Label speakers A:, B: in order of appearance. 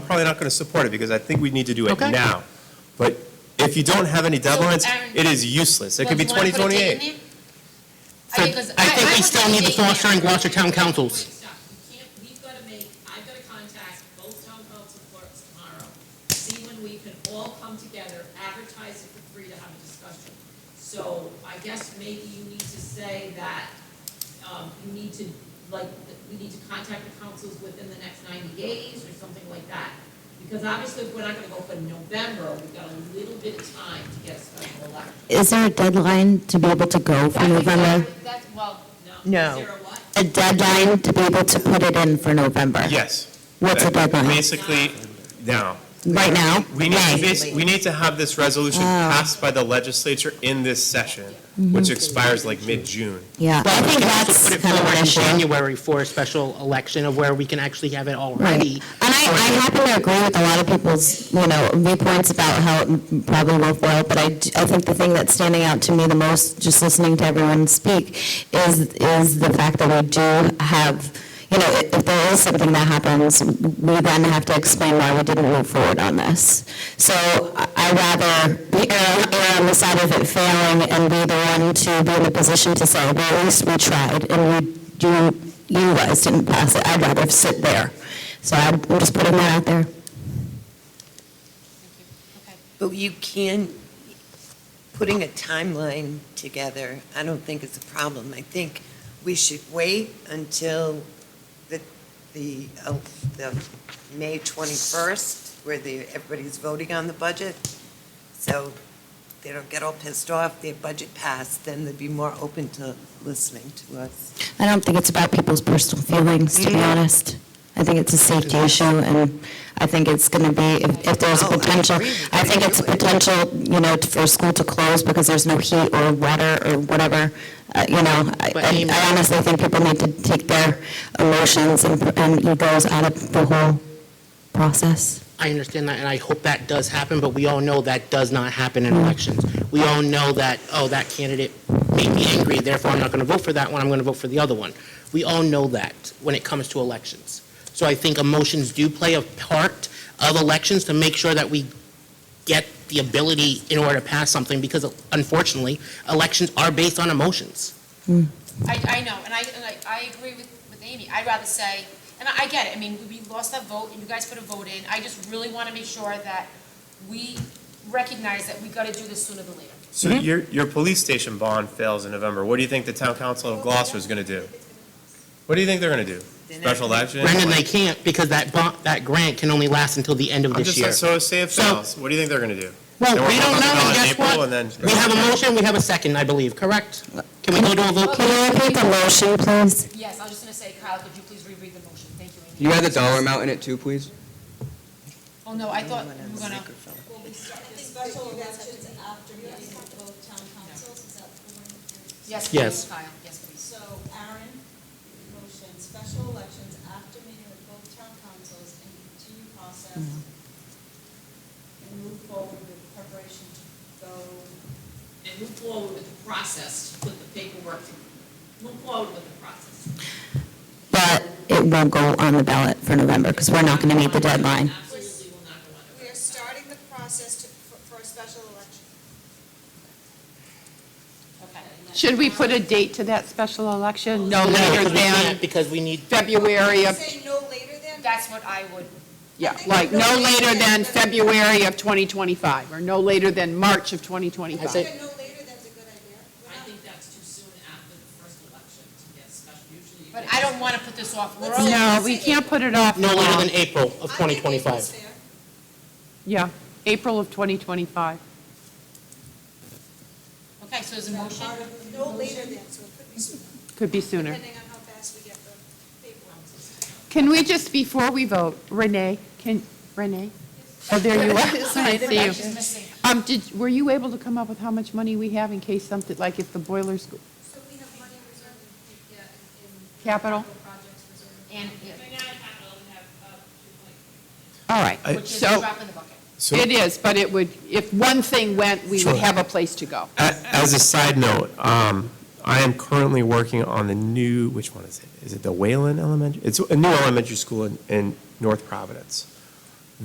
A: probably not going to support it, because I think we need to do it
B: Okay.
A: now. But if you don't have any deadlines,
C: Aaron,
A: it is useless. It could be
C: Well, do you wanna put a date
A: 2028.
C: in
B: So
C: there? I mean, 'cause
B: I think we
C: would
B: still
C: put a
B: need the
C: date in
B: Gloucester
C: there.
B: and Gloucester Town Councils.
D: Wait, stop. You can't, we've got to make, I've got to contact both town council clerks tomorrow, see when we can all come together, advertise it for free to have a discussion. So I guess maybe you need to say that, um, you need to, like, that we need to contact the councils within the next ninety days or something like that. Because obviously, if we're not going to go for November, we've got a little bit of time to get a special election.
E: Is there a deadline to be able to go for
C: That's
E: November?
C: exactly- That's, well,
D: No, is there a what?
E: A deadline to be able to put it in for November?
A: Yes.
E: What's the deadline?
A: Basically, now.
E: Right now?
A: We need, to
E: May.
A: basi- we need to have this
B: Oh.
A: resolution passed by the legislature in this session,
B: Mhm.
A: which expires like mid-June.
E: Yeah, I think that's
B: Put it
E: kind of
B: forward
E: what
B: in
E: I'm doing.
B: January for a special election of where we can actually have it all
E: Right.
B: ready.
E: And I, I happen to agree with a lot of people's, you know, viewpoints about how it probably will boil, but I, d- I think the thing that's standing out to me the most, just listening to everyone speak, is, is the fact that we do have, you know, i- if there is something that happens, we then have to explain why we didn't move forward on this. So I I'd rather be err err on the side of it failing and be the one to be in a position to say, well, at least we tried, and you, you, you guys didn't pass it. I'd rather sit there. So I'm I'm just putting that out there.
F: But you can, putting a timeline together, I don't think is a problem. I think we should wait until the, the, uh, the May 21st, where the, everybody's voting on the budget, so they don't get all pissed off, their budget passed, then they'd be more open to listening to us.
E: I don't think it's about people's personal feelings, to be
F: Mhm.
E: honest. I think it's a safety issue, and I think it's going to be, if if there's a
F: Oh, I
E: potential,
F: agree with
E: I think
F: you.
E: it's a potential, you know, t- for school to close because there's no heat or water or whatever, uh, you know. I-
B: But
E: I
B: Amy-
E: I honestly think people need to take their emotions and and egos out of the whole process.
B: I understand that, and I hope that does happen, but we all know that does not happen in elections. We all know that, oh, that candidate made me angry, therefore I'm not going to vote for that one, I'm going to vote for the other one. We all know that when it comes to elections. So I think emotions do play a part of elections to make sure that we get the ability in order to pass something, because unfortunately, elections are based on emotions.
C: I, I know, and I, and I, I agree with, with Amy, I'd rather say, and I, I get it, I mean, we lost that vote, and you guys put a vote in, I just really wanna make sure that we recognize that we gotta do this sooner than later.
A: So your, your police station bond fails in November. What do you think the town council of Gloucester is going to do? What do you think they're going to do? Special election?
B: Brendan, they can't, because that, bon- that grant can only last until the end of
A: I'm
B: this year.
A: just, so say it
B: So-
A: fails. What do you think they're going to do?
B: Well,
A: Then we're
B: we don't
A: voting
B: know,
A: on
B: and
A: it in
B: guess
A: April,
B: what?
A: and then-
B: We have a motion, we have a second, I believe, correct? Can we go to a vote,
E: Can you repeat the motion, please?
C: Yes, I was just gonna say, Kyle, could you please reread the motion, thank you, Amy.
G: Can you add the dollar amount in it too, please?
C: Well, no, I thought
F: Someone on
C: we were
F: the
C: gonna,
F: microphone.
H: special elections after meeting with both town councils, is that the one? you're-
C: yes,
B: Yes.
C: please, Kyle, yes, please.
H: So Aaron, motion, special elections after meeting with both town councils and continue process and
B: Mm-hmm.
H: move forward with preparation to go,
D: and move forward with the process, to put the paperwork, to move forward with the process.
E: But it won't go on the ballot for November because we're not going to meet the deadline.
D: Absolutely will not go under.
H: we are starting the process to, for, for a special election.
I: Should we put a date to that special election? No
B: No,
I: later
B: because we
I: than
B: can't, because we need,
I: February of,
H: Say no later than?
C: That's what I would,
I: yeah, like, no later than February of 2025, or no later than March of 2025.
B: I say-
H: Even no later than's a good idea. We're
D: I
H: not-
D: think that's too soon after the first election to get special, usually. you
C: but
D: get-
C: I don't wanna put this off, we're
H: Let's-
C: only,
I: No, we can't put it off.
B: no later than
I: now.
B: April of
H: I think April's
B: 2025.
H: fair.
I: Yeah, April of 2025.
C: okay, so there's a motion,
H: Part of No later than, so it could be sooner.
I: Could be sooner.
H: Depending on how fast we get the paperwork.
I: Can we just, before we vote, Renee, can, Renee? Oh, there you are. Sorry, I see you.
C: missing.
I: Um, did, were you able to come up with how much money we have in case something, like if the boilers, go-
H: So we have money reserved in, yeah, in.
I: Capital?
H: Projects reserved.
C: and,
D: Right now, in capital, we have, uh, two point
I: all right.
A: I-
C: which is a
I: So-
C: drop in the bucket.
A: So-
I: It is, but it would, if one thing went, we
A: Sure.
I: would have a place to go.
A: A- As a side note, um, I am currently working on the new, which one is it? Is it the Whalen Elementary? It's a new elementary school in, in North Providence.